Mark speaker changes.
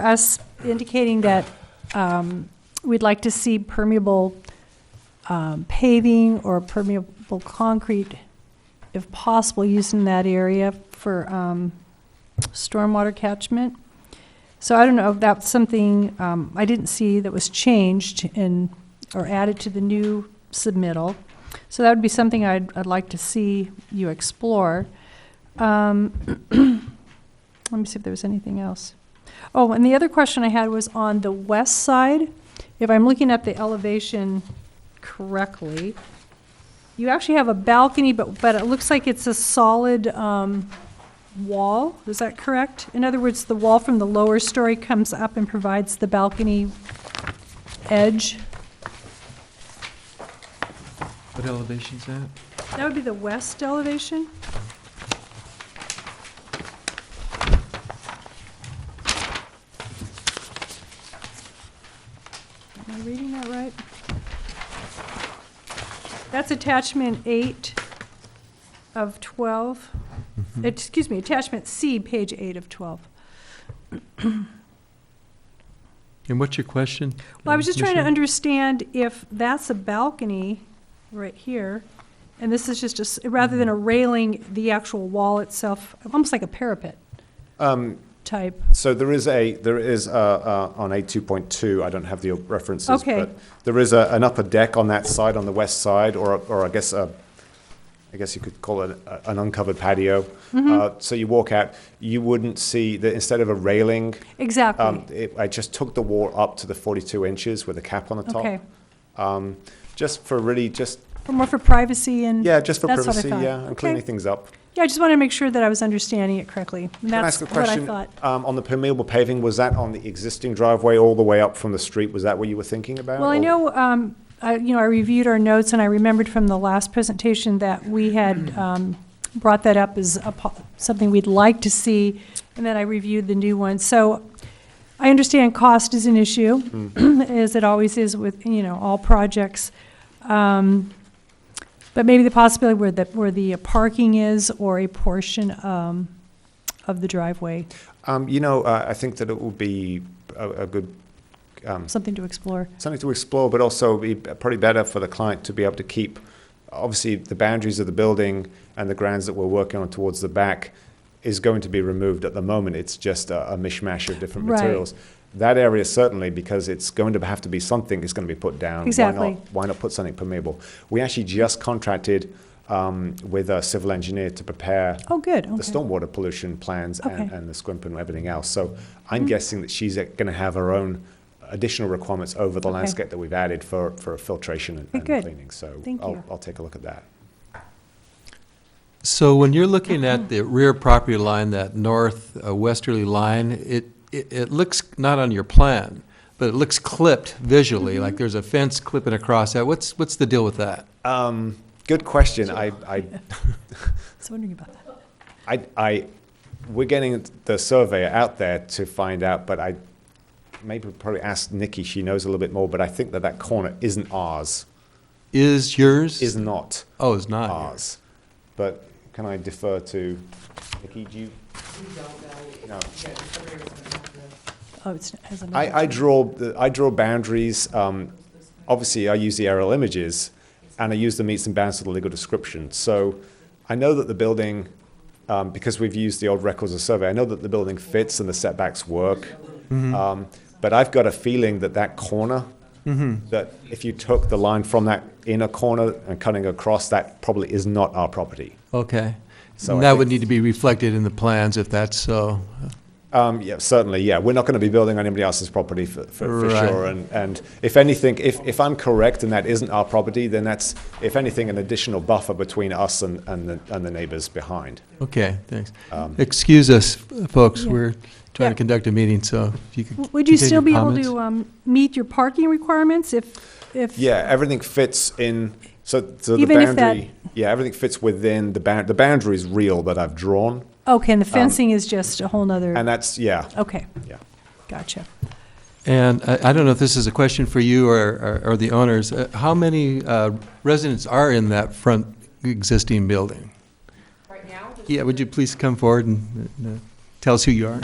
Speaker 1: for us indicating that um, we'd like to see permeable um, paving or permeable concrete, if possible, used in that area for um, stormwater catchment. So I don't know if that's something um, I didn't see that was changed in, or added to the new submittal. So that would be something I'd, I'd like to see you explore. Um, Let me see if there was anything else. Oh, and the other question I had was on the west side, if I'm looking at the elevation correctly, you actually have a balcony, but, but it looks like it's a solid, um, wall, is that correct? In other words, the wall from the lower story comes up and provides the balcony edge?
Speaker 2: What elevation's that?
Speaker 1: That would be the west elevation? Am I reading that right? That's attachment eight of 12. Excuse me, attachment C, page eight of 12.
Speaker 2: And what's your question?
Speaker 1: Well, I was just trying to
Speaker 2: Commissioner?
Speaker 1: understand if that's a balcony right here, and this is just, a s- rather
Speaker 3: Mm-hmm.
Speaker 1: than a railing, the actual wall itself, almost like a parapet
Speaker 3: Um,
Speaker 1: type.
Speaker 3: So there is a, there is, uh, uh, on A two point two, I don't have the references,
Speaker 1: Okay.
Speaker 3: but there is a, an upper deck on that side, on the west side, or, or I guess, uh, I guess you could call it a- an uncovered patio.
Speaker 1: Mm-hmm.
Speaker 3: Uh, so you walk out, you wouldn't see that instead of a railing, um,
Speaker 1: Exactly.
Speaker 3: it, I just took the wall up to the forty-two inches with a cap on the top.
Speaker 1: Okay.
Speaker 3: Um, just for really, just,
Speaker 1: For More for privacy and.
Speaker 3: yeah, just for
Speaker 1: that's what I
Speaker 3: privacy,
Speaker 1: thought.
Speaker 3: yeah, and
Speaker 1: Okay.
Speaker 3: cleaning things up.
Speaker 1: Yeah, I just wanted to make sure that I was understanding it correctly. And
Speaker 3: Can I
Speaker 1: that's
Speaker 3: ask a
Speaker 1: what I
Speaker 3: question?
Speaker 1: thought.
Speaker 3: Um, on the permeable paving, was that on the existing driveway all the way up from the street? Was that what you were thinking about?
Speaker 1: Well, I
Speaker 3: or-
Speaker 1: know, um, I, you know, I reviewed our notes and I remembered from the last presentation that we
Speaker 3: Mm.
Speaker 1: had, um, brought that up as a, po- something we'd like to see, and then I reviewed the new one. So I understand cost is an issue,
Speaker 3: Mm.
Speaker 1: as it always is with, you know, all projects. Um, but maybe the possibility where the, where the parking is or a portion, um, of the driveway,
Speaker 3: Um, you know, uh, I think that it would be a, a good, um,
Speaker 1: something to explore.
Speaker 3: something to explore, but also be probably better for the client to be able to keep, obviously, the boundaries of the building and the grounds that we're working on towards the back is going to be removed at the moment. It's just a, a mishmash of different
Speaker 1: Right.
Speaker 3: materials. That area certainly, because it's going to have to be something is going to be put down. Why
Speaker 1: Exactly.
Speaker 3: not, why not put something permeable? We actually just contracted um, with a civil engineer to prepare
Speaker 1: Oh, good,
Speaker 3: the
Speaker 1: okay.
Speaker 3: stormwater pollution plans and,
Speaker 1: Okay. Mm-hmm.
Speaker 3: and the squimp and everything else. So I'm guessing that she's going to have her own additional requirements over the
Speaker 1: Okay.
Speaker 3: landscape that we've added for, for filtration and,
Speaker 1: Okay,
Speaker 3: and
Speaker 1: good.
Speaker 3: cleaning. So
Speaker 1: Thank
Speaker 3: I'll,
Speaker 1: you.
Speaker 3: I'll take a look at that.
Speaker 2: So when you're looking at the rear property line, that north uh, westerly line, it, it, it looks, not on your plan, but it looks clipped
Speaker 1: Mm-hmm.
Speaker 2: visually, like there's a fence clipping across that. What's, what's the deal with that?
Speaker 3: Um, good question. I, I,
Speaker 1: I was wondering about that.
Speaker 3: I, I, we're getting the surveyor out there to find out, but I maybe probably ask Nikki. She knows a little bit more, but I think that that corner isn't ours,
Speaker 2: Is yours?
Speaker 3: is not
Speaker 2: Oh, it's not. yours.
Speaker 3: ours. But can I defer to Nikki? Do you? No.
Speaker 1: Oh, it's, has another.
Speaker 3: I, I draw the, I draw boundaries. Um, obviously, I use the aerial images, and I use the meets and bounds of the legal description. So, I know that the building, um, because we've used the old records of survey, I know that the building fits and the setbacks work. Um, but I've got a feeling that that corner, that if you took the line from that inner corner and cutting across, that probably is not our property.
Speaker 2: Okay.
Speaker 3: So
Speaker 2: And
Speaker 3: I
Speaker 2: that
Speaker 3: think-
Speaker 2: would need to be reflected in the plans if that's so.
Speaker 3: Um, yeah, certainly, yeah. We're not going to be building on anybody else's property for, for, for
Speaker 2: Right.
Speaker 3: sure. And, and if anything, if, if I'm correct and that isn't our property, then that's, if anything, an additional buffer between us and, and, the, and the neighbors behind.
Speaker 2: Okay, thanks.
Speaker 3: Um,
Speaker 2: Excuse us, folks,
Speaker 1: Yeah.
Speaker 2: we're
Speaker 1: Yeah.
Speaker 2: trying to conduct a meeting, so if you could.
Speaker 1: W- Would you
Speaker 2: continue
Speaker 1: still be able
Speaker 2: comments.
Speaker 1: to um, meet your parking requirements if, if?
Speaker 3: Yeah, everything fits in. So, so the
Speaker 1: Even if that-
Speaker 3: boundary, yeah, everything fits within the bound. The boundary is real that I've drawn,
Speaker 1: Okay, and the fencing is just a whole nother,
Speaker 3: Um, and that's yeah,
Speaker 1: okay,
Speaker 3: yeah.
Speaker 1: gotcha.
Speaker 2: And I I don't know if this is a question for you or- or or the owners. Uh, How many uh, residents are in that front existing building?
Speaker 4: Right now,
Speaker 2: Yeah, would you please come forward and uh, tell us who you are?